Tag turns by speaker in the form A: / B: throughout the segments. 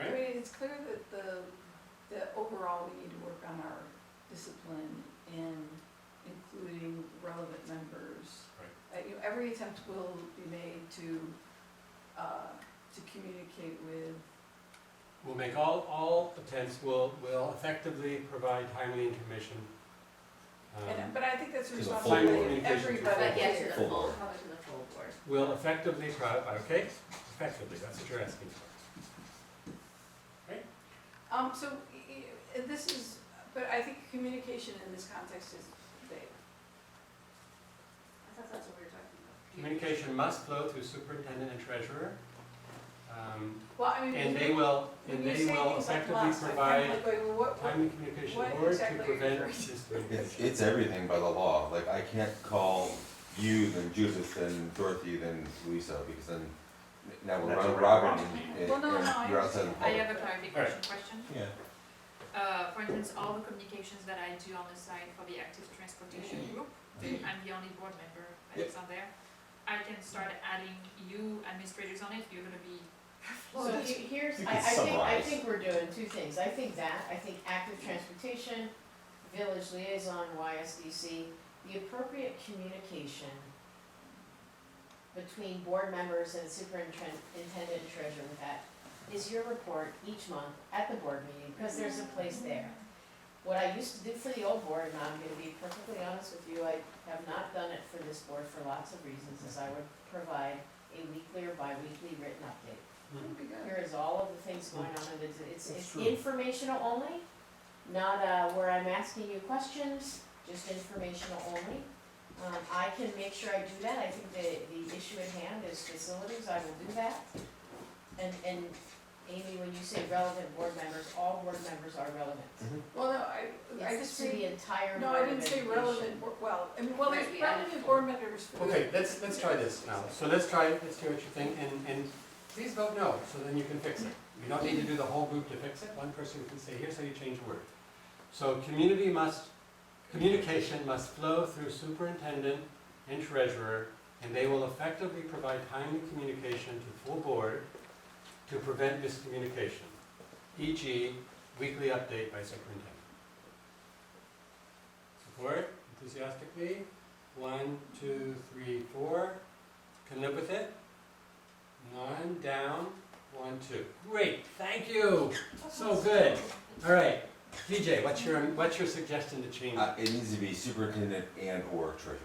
A: clear that the, that overall we need to work on our discipline in including relevant members. Uh, you know, every attempt will be made to, uh, to communicate with,
B: We'll make all, all attempts, we'll, will effectively provide timely information. Um,
A: and, but I think that's
C: To the full
A: responsibility
B: board.
A: of everybody
D: But yes, to
A: here.
D: the
C: Full
D: full,
C: board.
D: probably to the full board.
B: Will effectively pro, okay, effectively, that's what you're asking for.
A: Um, so, y- y- this is, but I think communication in this context is big.
D: I thought that's what we were talking about.
B: Communication must flow through superintendent and treasurer. Um,
A: Well, I mean.
B: And
A: if
B: they
A: you-
B: will,
A: when
B: and
A: you
B: they
A: say
B: will
A: things like
B: effectively
A: must, I kind of
B: provide
A: like, wait, well, what- what-
B: timely communication
A: what
B: or to
A: exactly are you
B: prevent
A: referring to?
C: It's,
B: miscommunication.
C: it's everything by the law, like I can't call you, then Judith, then Dorothy, then Louisa, because then now we're
E: That's a
C: Ron- Robin
E: wrong-
C: and,
A: Well, no, no, I
C: and you're outside
A: understand.
C: the public.
F: I have a clarification
E: Alright.
F: question.
C: Yeah.
F: Uh, for instance, all the communications that I do on the side for the active transportation
D: Mm-hmm.
F: group, I'm the only board member
C: Yep.
F: that's on there. I can start adding you administrators on it, you're gonna be.
D: Well,
F: So
D: you, here's,
C: You
D: I, I
C: can
D: think, I
C: summarize.
D: think we're doing two things, I think that, I think active transportation, village liaison, YSDC, the appropriate communication between board members and superintendent and treasurer with that is your report each month at the board meeting, because there's a place there. What I used to do for the old board, and I'm gonna be perfectly honest with you, I have not done it for this board for lots of reasons, is I would provide a weekly or bi-weekly written update.
A: That'd be good.
D: Here is all of the things going on, and it's, it's-
B: That's
D: it's
B: true.
D: informational only, not, uh, where I'm asking you questions, just informational only. Um, I can make sure I do that, I think the, the issue at hand is facilities, I will do that. And, and Amy, when you say relevant board members, all board members are relevant.
A: Well, no, I, I
D: It's
A: just
D: to
A: think-
D: the entire
A: no, I
D: Board of
A: didn't say
D: Education.
A: relevant, bo- well, I mean, well, there's
D: Right, we added
A: relevant
D: full.
A: board members for.
B: Okay, let's, let's try this now. So let's try, let's do what you think, and, and please vote no, so then you can fix it. You don't need to do the whole group to fix it, one person can say, here's how you change a word. So community must, communication must flow through superintendent and treasurer, and they will effectively provide timely communication to full board to prevent miscommunication, e.g. weekly update by superintendent. Support enthusiastically? One, two, three, four. Can live with it? One down, one, two. Great, thank you. So good. All right, DJ, what's your, what's your suggestion to change?
C: Uh, it needs to be superintendent and or treasurer.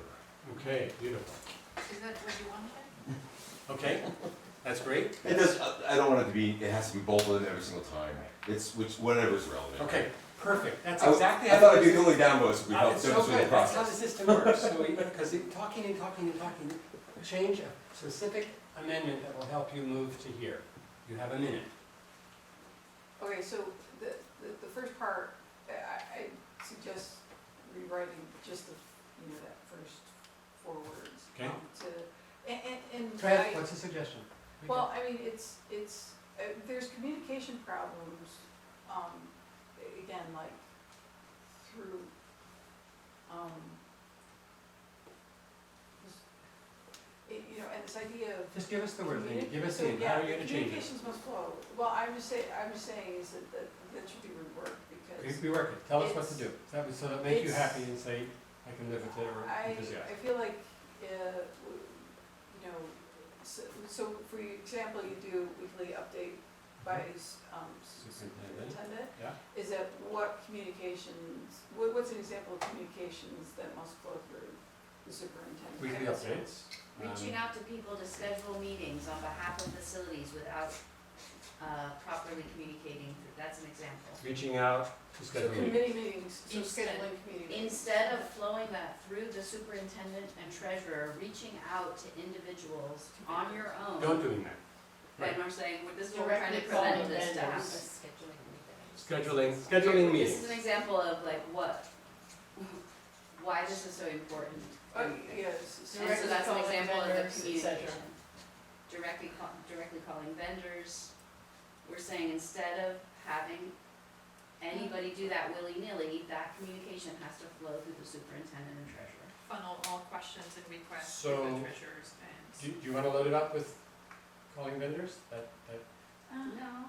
B: Okay, beautiful.
F: Is that what you wanted?
B: Okay, that's great.
C: It does, uh, I- I don't want it to be, it has to be both of them every single time, it's which, whatever's relevant.
B: Okay, perfect. That's
C: I-
B: exactly
C: I
B: how.
C: thought
B: this
C: it'd be
B: is-
C: the only downvotes would
B: Uh,
C: help
B: It's so
C: demonstrate the
B: good, that's how the
C: process.
B: system works. So, because talking and talking and talking, change a specific amendment that will help you move to here. You have a minute.
A: Okay, so the, the, the first part, uh, I, I suggest rewriting just the, you know, that first four words.
B: Okay.
A: um, To, and, and, and.
B: Fran,
A: I-
B: what's the suggestion? We can-
A: Well, I mean, it's, it's, uh, there's communication problems, um, a- again, like through, um, this- it- you know, and this idea of
B: Just give us the word, then
A: Communi-
B: give us
A: so,
B: the, how are you
A: yeah,
B: gonna change it?
A: Communications must flow. Well, I'm just saying, I'm just saying is that, that, that should be reworked because
B: We, we work it, tell us what to
A: It's-
B: do, so that would, so that make you
A: it's-
B: happy and say, I can live with it or
A: I, I
B: enthusiastic.
A: feel like, uh, w- you know, so, so for example, you do weekly update by, s- um,
B: Mm-hmm. Superintendent.
A: superintendent.
B: Yeah.
A: Is that what communications, what, what's an example of communications that must flow through the superintendent?
B: Weekly updates.
D: Reaching
B: um,
D: out to people to schedule meetings on behalf of facilities without uh, properly communicating, that's an example.
B: Reaching out to
A: So
B: schedule meetings.
A: committee meetings, so
D: Instead-
A: scheduling committee meetings.
D: Instead of flowing that through the superintendent and treasurer, reaching out to individuals on your
B: Don't
D: own,
B: doing that,
D: and we're saying, well, this is what we're trying to prevent this to happen.
B: scheduling, scheduling
D: This
B: meetings.
D: is an example of like what, why this is so important.
A: Uh,
D: And
A: yes.
D: so that's an example of the communication. Directly, call- directly calling vendors. We're saying instead of having anybody do that willy-nilly, that communication has to flow through the superintendent and treasurer.
F: Funnel all questions and requests to
B: So,
F: the treasurers and.
B: Do, do you wanna load it up with calling vendors? That, that
D: No,